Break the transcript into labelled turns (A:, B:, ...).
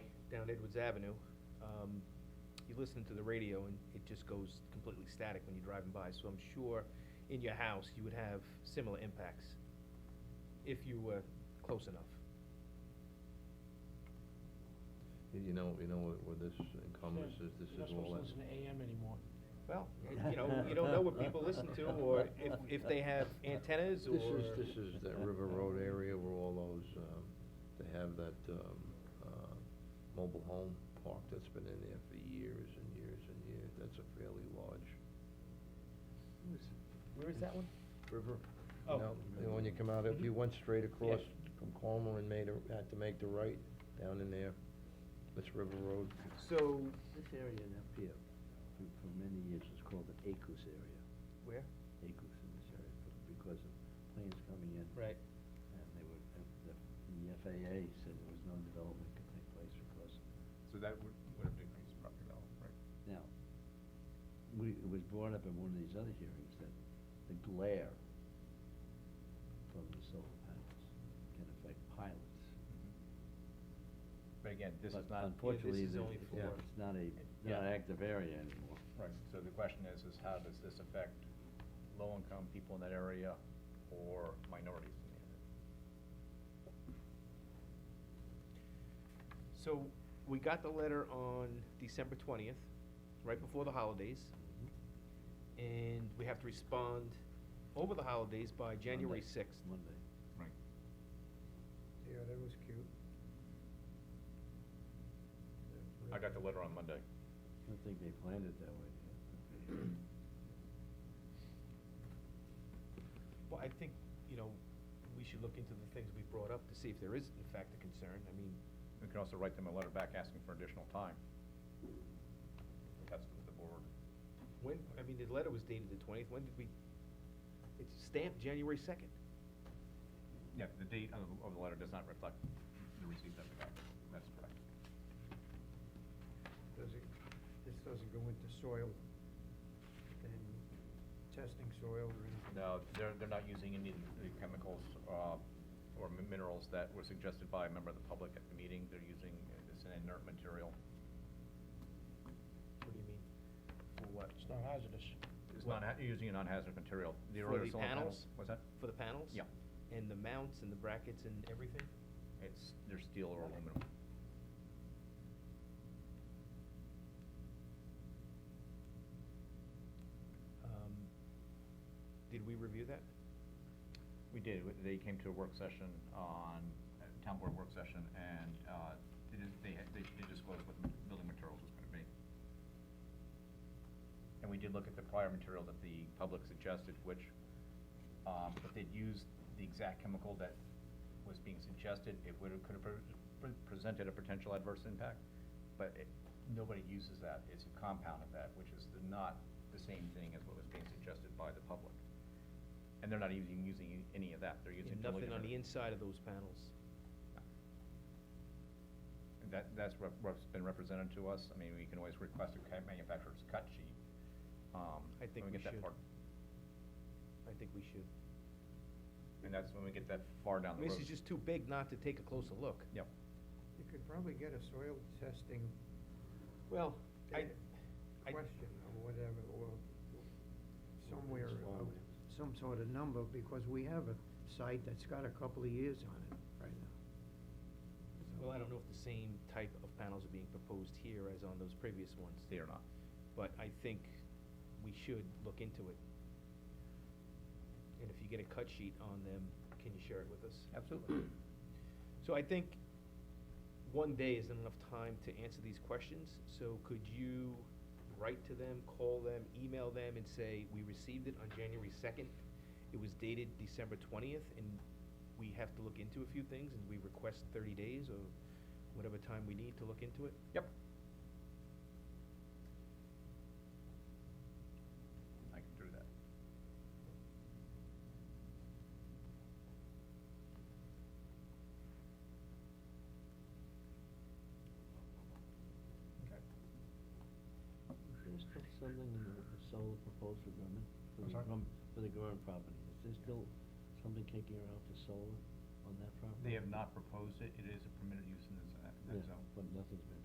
A: down Edwards Avenue, um, you listen to the radio and it just goes completely static when you're driving by, so I'm sure in your house, you would have similar impacts if you were close enough.
B: You you know, you know what, what this encompasses, this is all that.
C: You're not supposed to listen to AM anymore.
A: Well, you know, you don't know what people listen to, or if, if they have antennas, or.
B: This is, this is that River Road area where all those, um, they have that, um, uh, mobile home park that's been in there for years and years and years, that's a fairly large.
A: Where is that one?
B: River.
A: Oh.
B: No, you know, when you come out, if you went straight across from Cornwall and made a, had to make the right down in there, that's River Road.
A: So,
D: This area in up here, for, for many years, was called an acus area,
A: where?
D: acus in this area, b- because of planes coming in.
A: Right.
D: And they were, and the, the FAA said there was no development could take place because,
E: So that would, would have increased property value, right?
D: now, we, it was brought up in one of these other hearings that the glare from the solar panels can affect pilots.
C: Mm-hmm.
E: But again, this
D: But
E: is not,
D: Unfortunately,
A: is
D: the-
A: only
D: it's
A: for-
D: not- it's not a,
E: Yeah.
D: not an active area anymore.
E: right, so the question is, is how does this affect low-income people in that area or minorities in the area?
A: So, we got the letter on December twentieth, right before the holidays,
D: Mm-hmm.
A: and we have to respond over the holidays by January
D: Monday,
A: sixth.
D: Monday.
E: Right.
F: Yeah, that was cute.
E: I got the letter on Monday.
D: I don't think they planned it that way. did they?
A: Well, I think, you know, we should look into the things we brought up to see if there is in fact a concern, I mean,
E: We can also write them a letter back asking for additional time. That's what the board.
A: when, I mean, the letter was dated the twentieth, when did we, it's stamped January second.
E: Yeah, the date of, of the letter does not reflect the receipt of the packet. That's correct.
F: Does it, this doesn't go into soil and testing soil or anything?
E: No, they're, they're not using any of the chemicals, uh, or mi- minerals that were suggested by a member of the public at the meeting. They're using, it's an inert material.
A: What do you mean? For what?
C: It's not hazardous.
E: It's non, you're using a non-hazardous material.
A: For
E: earlier
A: the
E: solar
A: panels?
E: What's that?
A: For the panels?
E: Yeah.
A: And the mounts and the brackets and everything?
E: It's, they're steel or aluminum.
A: Um, Did we review that?
E: We did, W- they came to a work session on, uh, town board work session, and, uh, they did, they, had- they did disclose what the building materials was gonna be. And we did look at the prior material that the public suggested, which, um, if they'd used the exact chemical that was being suggested, it would have, could have pre- pre- presented a potential adverse impact, but it, nobody uses that, it's a compound of that, which is the- not the same thing as what was being suggested by the public. And they're not even using any of that, they're using.
A: And
E: totally
A: nothing on the
E: different-
A: inside of those panels?
E: And That, that's what, what's been represented to us, I mean, we can always request a cut- manufacturer's cut sheet. um,
A: I think
E: when
A: we
E: get that
A: should.
E: far-
A: I think we should.
E: And that's when we get that far down the road.
A: This is just too big not to take a closer look.
E: Yep.
F: You could probably get a soil testing
A: Well, I, I,
F: question or whatever, or somewhere,
D: Well,
F: of some sort of number, because we have a site that's got a couple of years on it right now.
A: well, I don't know if the same type of panels are being proposed here as on those previous ones.
E: They are not.
A: But I think we should look into it. And if you get a cut sheet on them, can you share it with us?
E: Absolutely.
A: So I think one day isn't enough time to answer these questions, so could you write to them, call them, email them and say, we received it on January second? It was dated December twentieth and we have to look into a few things and we request thirty days or whatever time we need to look into it?
E: Yep. I can do that. Okay.
D: Is there still something in the the solar proposed for Gorman? for
E: I'm
D: the
E: sorry?
D: Gorm- For the Gorman property, is there still something kicking around for solar on that property?
E: They have not proposed it, it is a permitted use in the z- that
D: Yeah,
E: zone.
D: but nothing